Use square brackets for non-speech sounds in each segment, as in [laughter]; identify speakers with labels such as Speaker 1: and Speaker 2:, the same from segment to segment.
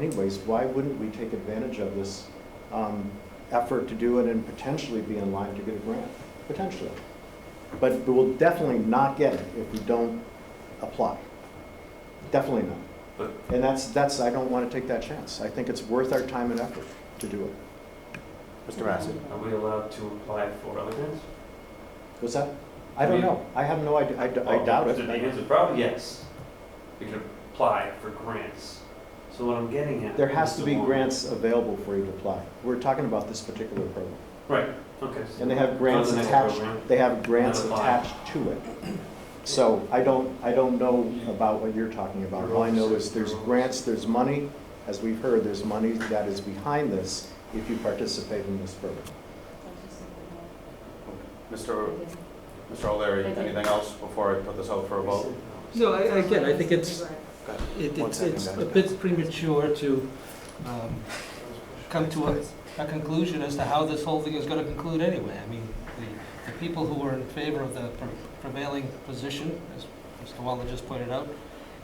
Speaker 1: anyways, why wouldn't we take advantage of this um, effort to do it and potentially be in line to get a grant? Potentially. But we'll definitely not get it if we don't apply. Definitely not.
Speaker 2: But-
Speaker 1: And that's, that's, I don't want to take that chance. I think it's worth our time and effort to do it.
Speaker 3: Mr. Massey?
Speaker 2: Are we allowed to apply for other grants?
Speaker 1: Was that, I don't know. I have no idea. I d- I doubt
Speaker 2: The thing
Speaker 1: it.
Speaker 2: is, the problem, yes, we could apply for grants. So what I'm getting at.
Speaker 1: There has
Speaker 2: is
Speaker 1: to
Speaker 2: the
Speaker 1: be
Speaker 2: one-
Speaker 1: grants available for you to apply. We're talking about this particular program.
Speaker 2: Right, okay. so
Speaker 1: And they have grants
Speaker 2: Doesn't it
Speaker 1: attached,
Speaker 2: program?
Speaker 1: they have grants
Speaker 2: Not applied.
Speaker 1: attached to it. So I don't, I don't know about what you're talking about. All I know is there's grants, there's money, as we've heard, there's money that is behind this if you participate in this program.
Speaker 3: Mr. Mr. O'Leary, anything else before I put this out for a vote?
Speaker 4: No, I, again, I think it's, it-
Speaker 3: One
Speaker 4: it's,
Speaker 3: second,
Speaker 4: it's a
Speaker 3: guys.
Speaker 4: bit premature to um, come to a, a conclusion as to how this whole thing is gonna conclude anyway. I mean, the, the people who are in favor of the pre- prevailing position, as Mr. Waller just pointed out,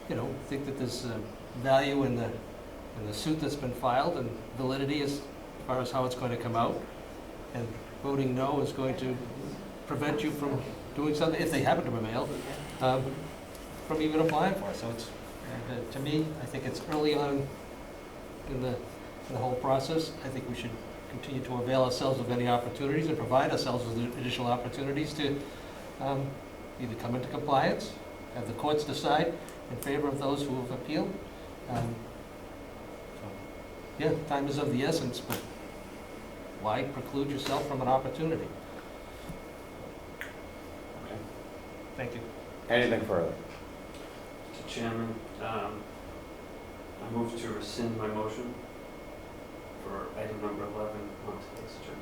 Speaker 4: you know, think that there's uh, value in the, in the suit that's been filed and validity as far as how it's going to come out. And voting no is going to prevent you from doing something, if they happen to prevail, um, from even applying for it. So it's, and, uh, to me, I think it's early on in the, in the whole process. I think we should continue to avail ourselves of any opportunities and provide ourselves with additional opportunities to um, either come into compliance, have the courts decide in favor of those who have appealed. Um, so, Yeah, time is of the essence, but why preclude yourself from an opportunity?
Speaker 3: Okay.
Speaker 4: Thank you.
Speaker 3: Anything further?
Speaker 2: Mr. Chairman, um, I move to rescind my motion for item number 11 on today's agenda.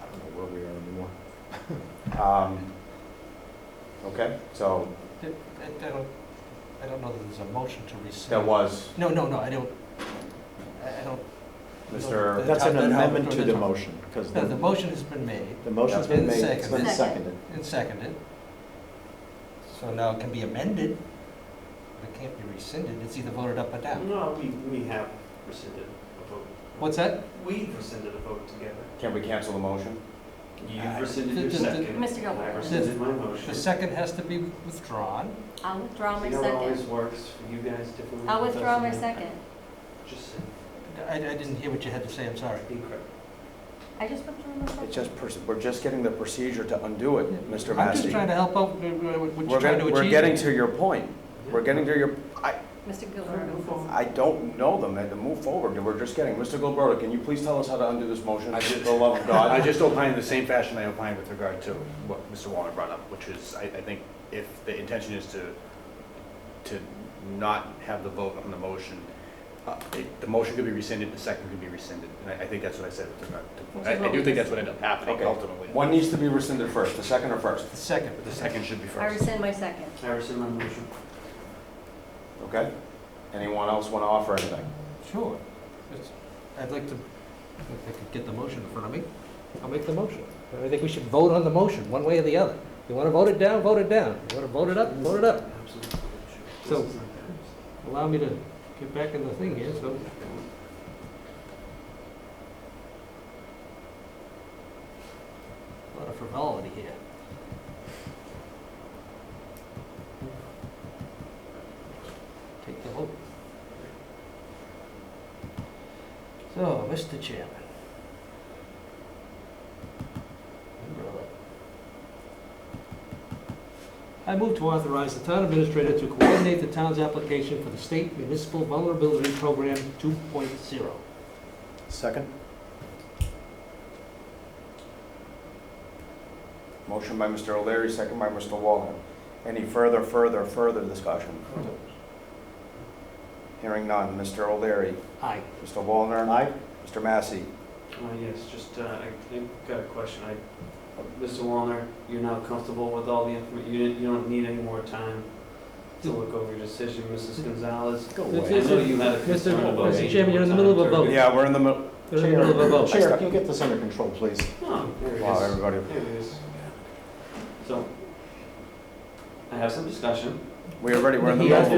Speaker 1: I don't know where we are anymore.
Speaker 3: [laughs] Um, Okay, so
Speaker 4: Did- I I don't, I don't know that there's a motion to rescind.
Speaker 3: there was,
Speaker 4: No, no, no, I don't, I I don't.
Speaker 3: Mr.
Speaker 1: That's an amendment to the motion, because
Speaker 4: The, the
Speaker 1: the
Speaker 4: motion has been made
Speaker 1: the motion's been made, it's been
Speaker 4: Second.
Speaker 1: seconded.
Speaker 4: and seconded. So now it can be amended, but it can't be rescinded, it's either voted up or down.
Speaker 2: No, we, we have rescinded a vote.
Speaker 4: What's that?
Speaker 2: We've rescinded a vote together.
Speaker 3: can we cancel the motion?
Speaker 2: You've rescinded
Speaker 4: Uh,
Speaker 2: your
Speaker 4: the- the-
Speaker 2: second.
Speaker 5: Mr. Gilmore.
Speaker 2: I rescinded my motion.
Speaker 4: The second has to be withdrawn.
Speaker 5: I'll withdraw my
Speaker 2: You know, it always
Speaker 5: second.
Speaker 2: works for you guys differently.
Speaker 5: I'll
Speaker 2: It
Speaker 5: withdraw my
Speaker 2: doesn't.
Speaker 5: second.
Speaker 2: Just
Speaker 4: I, I didn't hear what you had to say, I'm sorry.
Speaker 2: be correct.
Speaker 5: I just withdrew my second.
Speaker 3: It's just, pers- we're just getting the procedure to undo it, Mr.
Speaker 4: I'm just
Speaker 3: Massey.
Speaker 4: trying to help out, uh, what
Speaker 3: We're
Speaker 4: you're trying to
Speaker 3: get-
Speaker 4: achieve.
Speaker 3: we're getting to your point. We're getting to your, I,
Speaker 5: Mr.
Speaker 2: Move
Speaker 5: Gilmore.
Speaker 2: forward.
Speaker 3: I don't know them, and to move forward, we're just getting, Mr. Gilberto, can you please tell us how to undo this motion?
Speaker 6: I just-
Speaker 3: For the love of [laughs] God.
Speaker 6: I just opine in the same fashion I opine with regard to what Mr. Wallner brought up, which is, I, I think if the intention is to, to not have the vote on the motion, uh, it- the motion could be rescinded, the second could be rescinded, and I, I think that's what I said with regard
Speaker 5: Which
Speaker 6: to,
Speaker 5: is
Speaker 6: I, I
Speaker 5: what
Speaker 6: do
Speaker 5: we
Speaker 6: think that's what ended up happening
Speaker 3: Okay.
Speaker 6: ultimately.
Speaker 3: One needs to be rescinded first, the second or first,
Speaker 4: The second.
Speaker 6: But the second should
Speaker 5: I
Speaker 6: be first.
Speaker 5: rescind my second.
Speaker 2: I rescind my motion.
Speaker 3: okay? Anyone else want to offer anything?
Speaker 4: Sure. It's- I'd like to, if I could get the motion in front of me, I'll make the motion. But I think we should vote on the motion, one way or the other. You want to vote it down, vote it down. You want to vote it up, vote it up.
Speaker 2: Absolutely.
Speaker 4: So- Allow me to get back in the thing here, so. A lot of frivolity here. Take the vote. So, Mr. Chairman. Number 11. I move to authorize the town administrator to coordinate the town's application for the state municipal vulnerability program 2.0.
Speaker 1: Second?
Speaker 3: Motion by Mr. O'Leary, second by Mr. Wallner. Any further, further, further discussion? Hearing none, Mr. O'Leary,
Speaker 4: Aye.
Speaker 3: Mr. Wallner,
Speaker 1: Aye?
Speaker 3: Mr. Massey.
Speaker 2: Uh, yes, just, uh, I think, got a question. I, Mr. Wallner, you're now comfortable with all the information. You didn't, you don't need any more time to look over your decision, Mrs. Gonzalez.
Speaker 1: Go
Speaker 2: I
Speaker 1: away.
Speaker 2: know you had a concern
Speaker 4: Mr.
Speaker 2: about.
Speaker 4: Mr.
Speaker 2: needing
Speaker 4: Chairman, you're in the
Speaker 2: more
Speaker 4: middle of a
Speaker 2: time to-
Speaker 4: vote.
Speaker 3: Yeah, we're in the, mi-
Speaker 4: You're in the middle of a vote.
Speaker 1: Chair, can you get this under control, please?
Speaker 2: Oh, there it
Speaker 3: wow,
Speaker 2: is.
Speaker 3: everybody.
Speaker 2: There it is. So, I have some discussion.
Speaker 6: We already were in the
Speaker 7: He has
Speaker 6: middle.